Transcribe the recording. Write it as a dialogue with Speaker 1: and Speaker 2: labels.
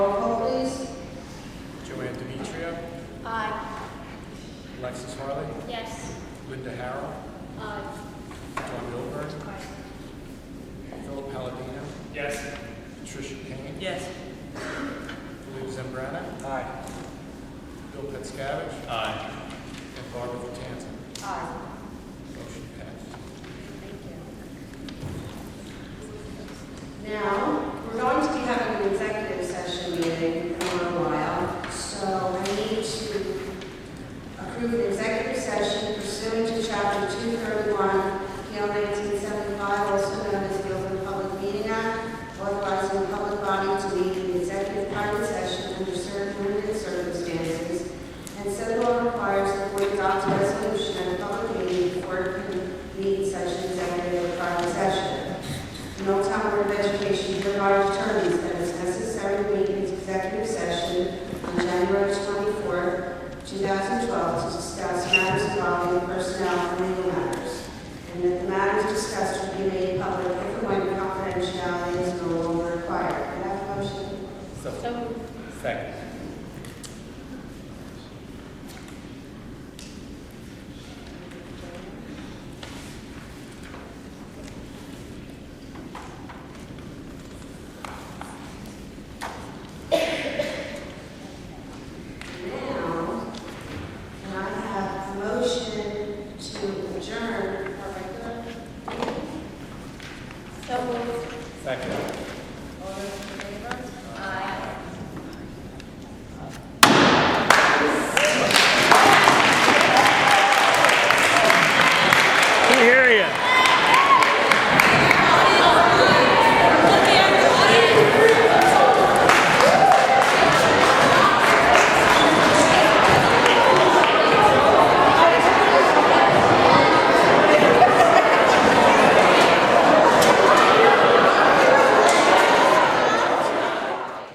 Speaker 1: Linda Harrell. John Milburn. Philip Palladino.
Speaker 2: Yes.
Speaker 1: Patricia Kane.
Speaker 3: Yes.
Speaker 1: Lou Zambrana. Aye. Bill Petzkavich.
Speaker 2: Aye.
Speaker 1: And Barbara Vatanza.
Speaker 3: Aye.
Speaker 1: Motion passed.
Speaker 4: Now, we're going to be having an executive session meeting in a little while, so I need to approve an executive session pursuant to Chapter 231, PL 1975, also known as the Open Public Meeting Act, authorizing the public body to meet in executive private session under certain limited circumstances, and said law requires the board adopts a resolution at a public meeting before it can meet such an executive private session. The Old Town Board of Education hereby determines that it's necessary to meet its executive session on January 24, 2012, to discuss matters involving personnel and legal matters, and that the matters discussed will be made public if and when confidentiality is no longer required. Can I have a motion?
Speaker 3: So,
Speaker 2: Second.